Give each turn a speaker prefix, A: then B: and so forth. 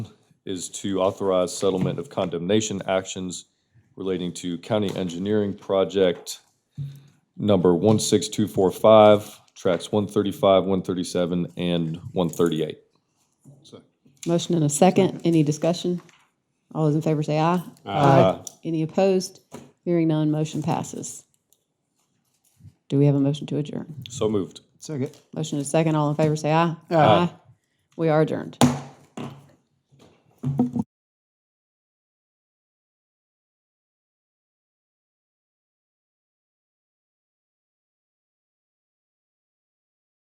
A: is to authorize settlement of condemnation actions relating to county engineering project number 16245, tracks 135, 137, and 138.
B: Motion and a second. Any discussion? All those in favor say aye.
A: Aye.
B: Any opposed? Hearing none, motion passes. Do we have a motion to adjourn?
A: So moved.
C: Second.
B: Motion and a second. All in favor say aye.
C: Aye.
B: We are adjourned.